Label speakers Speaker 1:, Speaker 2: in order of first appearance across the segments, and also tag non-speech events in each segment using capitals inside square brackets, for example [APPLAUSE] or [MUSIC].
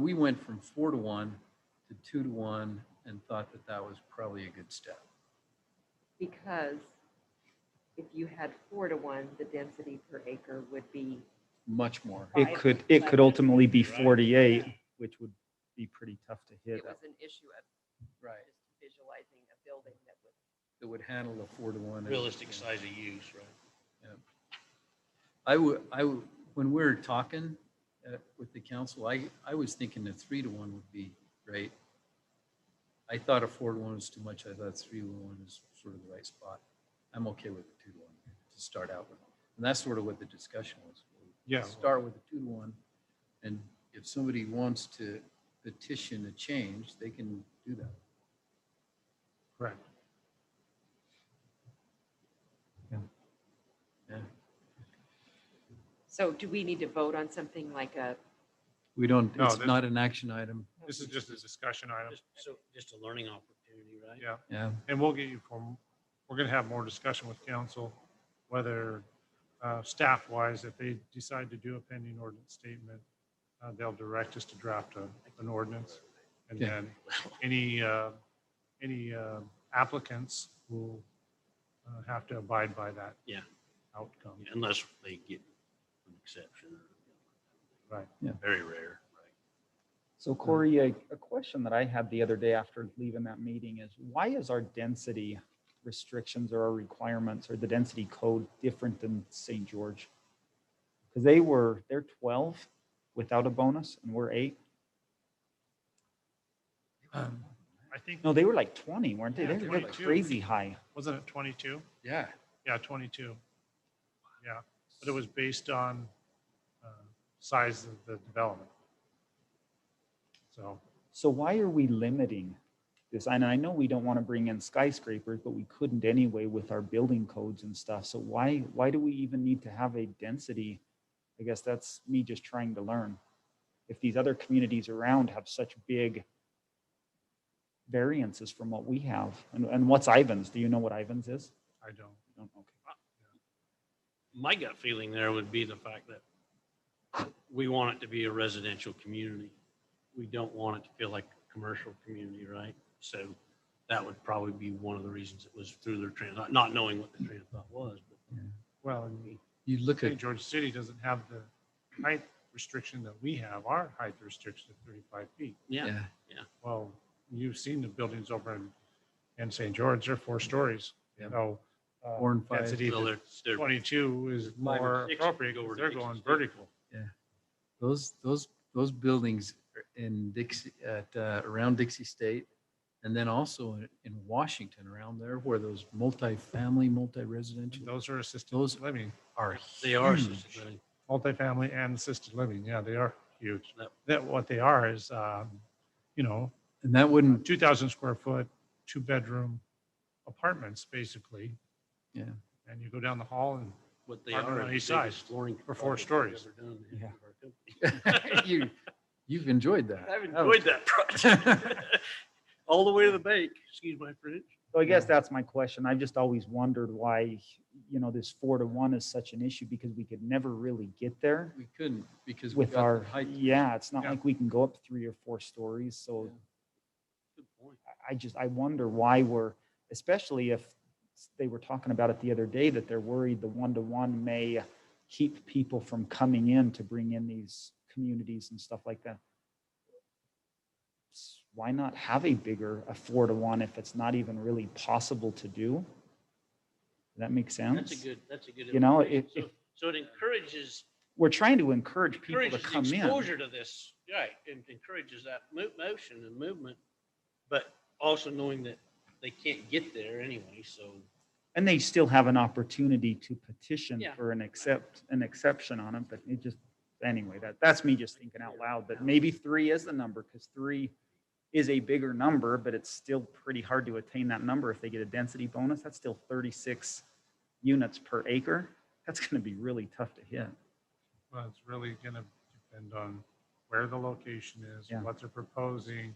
Speaker 1: we went from four to one to two to one and thought that that was probably a good step.
Speaker 2: Because if you had four to one, the density per acre would be,
Speaker 1: Much more.
Speaker 2: Five,
Speaker 3: It could, it could
Speaker 2: eleven.
Speaker 3: ultimately be
Speaker 4: Right.
Speaker 3: 48, which would be pretty tough to hit.
Speaker 2: it was an issue of
Speaker 1: Right.
Speaker 2: just visualizing a building that would.
Speaker 1: That would handle a four to one. and-
Speaker 4: realistic size of use, right?
Speaker 1: I would, I would, when we were talking uh, with the council, I, I was thinking that three to one would be great. I thought a four to one was too much. I thought three to one is sort of the right spot. I'm okay with the two to one to start out with. And that's sort of what the discussion was.
Speaker 5: Yeah.
Speaker 1: Start with the two to one. And if somebody wants to petition a change, they can do that.
Speaker 5: Correct.
Speaker 1: Yeah.
Speaker 2: So do we need to vote on something like a?
Speaker 1: We don't,
Speaker 5: No,
Speaker 1: it's
Speaker 5: this-
Speaker 1: not an action item.
Speaker 5: This is just a discussion item.
Speaker 4: Just, so, just a learning opportunity, right?
Speaker 5: Yeah.
Speaker 1: Yeah.
Speaker 5: And we'll get you from, we're going to have more discussion with council, whether uh, staff-wise, if they decide to do a pending ordinance statement, uh, they'll direct us to draft a- an ordinance. And
Speaker 1: Yeah.
Speaker 5: then any, uh, any uh, applicants will uh, have to abide by that.
Speaker 4: Yeah.
Speaker 5: Outcome.
Speaker 4: Unless they get an exception.
Speaker 5: Right.
Speaker 1: Yeah.
Speaker 4: Very rare, right?
Speaker 3: So Corey, a, a question that I had the other day after leaving that meeting is why is our density restrictions or our requirements or the density code different than St. George? Because they were, they're 12 without a bonus and we're eight.
Speaker 1: Um,
Speaker 5: I think,
Speaker 3: No, they were like 20, weren't they?
Speaker 5: Yeah,
Speaker 3: They were
Speaker 5: 22.
Speaker 3: crazy high.
Speaker 5: wasn't it 22?
Speaker 1: Yeah.
Speaker 5: Yeah, 22. Yeah, but it was based on uh, size of the development. So,
Speaker 3: So why are we limiting this? And I know we don't want to bring in skyscrapers, but we couldn't anyway with our building codes and stuff. So why, why do we even need to have a density? I guess that's me just trying to learn. If these other communities around have such big variances from what we have, and, and what's Ivans? Do you know what Ivans is?
Speaker 5: I don't.
Speaker 3: You don't? Okay.
Speaker 4: My gut feeling there would be the fact that we want it to be a residential community. We don't want it to feel like a commercial community, right? So that would probably be one of the reasons it was through their trans, not knowing what the trans thought was, but
Speaker 5: Well, and
Speaker 1: You look at
Speaker 5: St. George City doesn't have the height restriction that we have. Our height restriction is 35 feet.
Speaker 4: yeah.
Speaker 1: Yeah,
Speaker 5: Well, you've seen the buildings over in, in St. George, they're four stories.
Speaker 1: Yeah.
Speaker 5: So uh,
Speaker 1: Four and five.
Speaker 5: density
Speaker 4: Well,
Speaker 5: to
Speaker 4: they're, they're,
Speaker 5: 22 is
Speaker 4: Five or
Speaker 5: more
Speaker 4: six
Speaker 5: appropriate
Speaker 4: go over
Speaker 5: because
Speaker 4: to
Speaker 5: they're
Speaker 4: six
Speaker 5: going
Speaker 4: is different.
Speaker 5: vertical.
Speaker 1: those, those, those buildings are in Dixie, at, uh, around Dixie State. And then also in- in Washington around there where those multifamily, multi-residential
Speaker 5: Those are assisted
Speaker 1: Those-
Speaker 5: living,
Speaker 1: are.
Speaker 4: they are
Speaker 5: Hmm.
Speaker 1: huge.
Speaker 4: assisted living.
Speaker 5: multifamily and assisted living. Yeah, they are huge.
Speaker 4: Yep.
Speaker 5: That what they are is, um, you know,
Speaker 1: And that wouldn't, [LAUGHS]
Speaker 5: 2,000 square foot, two bedroom apartments, basically.
Speaker 1: Yeah.
Speaker 5: And you go down the hall and
Speaker 4: What they
Speaker 5: Apartment
Speaker 4: are.
Speaker 5: on
Speaker 4: is
Speaker 5: each
Speaker 4: the biggest
Speaker 5: side
Speaker 4: flooring
Speaker 5: for four
Speaker 4: project we've
Speaker 5: stories.
Speaker 4: ever done in the history of our company.
Speaker 1: you, you've enjoyed that.
Speaker 4: I've enjoyed that project. [LAUGHS] All the way to the bank, excuse my French.
Speaker 3: So I guess
Speaker 1: Yeah.
Speaker 3: that's my question. I've just always wondered why, you know, this four to one is such an issue because we could never really get there.
Speaker 1: We couldn't because we
Speaker 3: with
Speaker 1: got
Speaker 3: our,
Speaker 1: the height.
Speaker 3: yeah, it's not
Speaker 5: Yeah.
Speaker 3: like we can go up three or four stories. So
Speaker 1: Yeah.
Speaker 4: Good point.
Speaker 3: I- I just, I wonder why we're, especially if s- they were talking about it the other day, that they're worried the one-to-one may keep people from coming in to bring in these communities and stuff like that. S- Why not have a bigger, a four-to-one if it's not even really possible to do? Does that make
Speaker 4: That's a
Speaker 3: sense?
Speaker 4: good, that's a good.
Speaker 3: You know,
Speaker 4: illustration.
Speaker 3: if-
Speaker 4: So- So it encourages,
Speaker 3: We're trying to encourage people to
Speaker 4: encourages
Speaker 3: come in.
Speaker 4: exposure to this, right, and encourages that mo- motion and movement, but also knowing that they can't get there anyway, so.
Speaker 3: And they still have an opportunity to petition
Speaker 4: Yeah.
Speaker 3: for an accept, an exception on it, but it just, anyway, that, that's me just thinking out loud, but maybe three is the number, because three is a bigger number, but it's still pretty hard to attain that number if they get a density bonus, that's still thirty-six units per acre, that's gonna be really tough to hit.
Speaker 5: Well, it's really gonna depend on where the location is,
Speaker 3: Yeah.
Speaker 5: what they're proposing,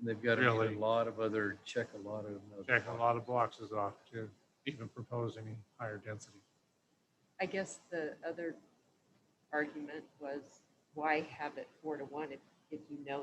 Speaker 1: And They've got to meet
Speaker 5: Really.
Speaker 1: a lot of other, check a lot of. other
Speaker 5: check a lot of blocks is off to even propose any higher density.
Speaker 2: I guess the other argument was why have it four to one if, if you know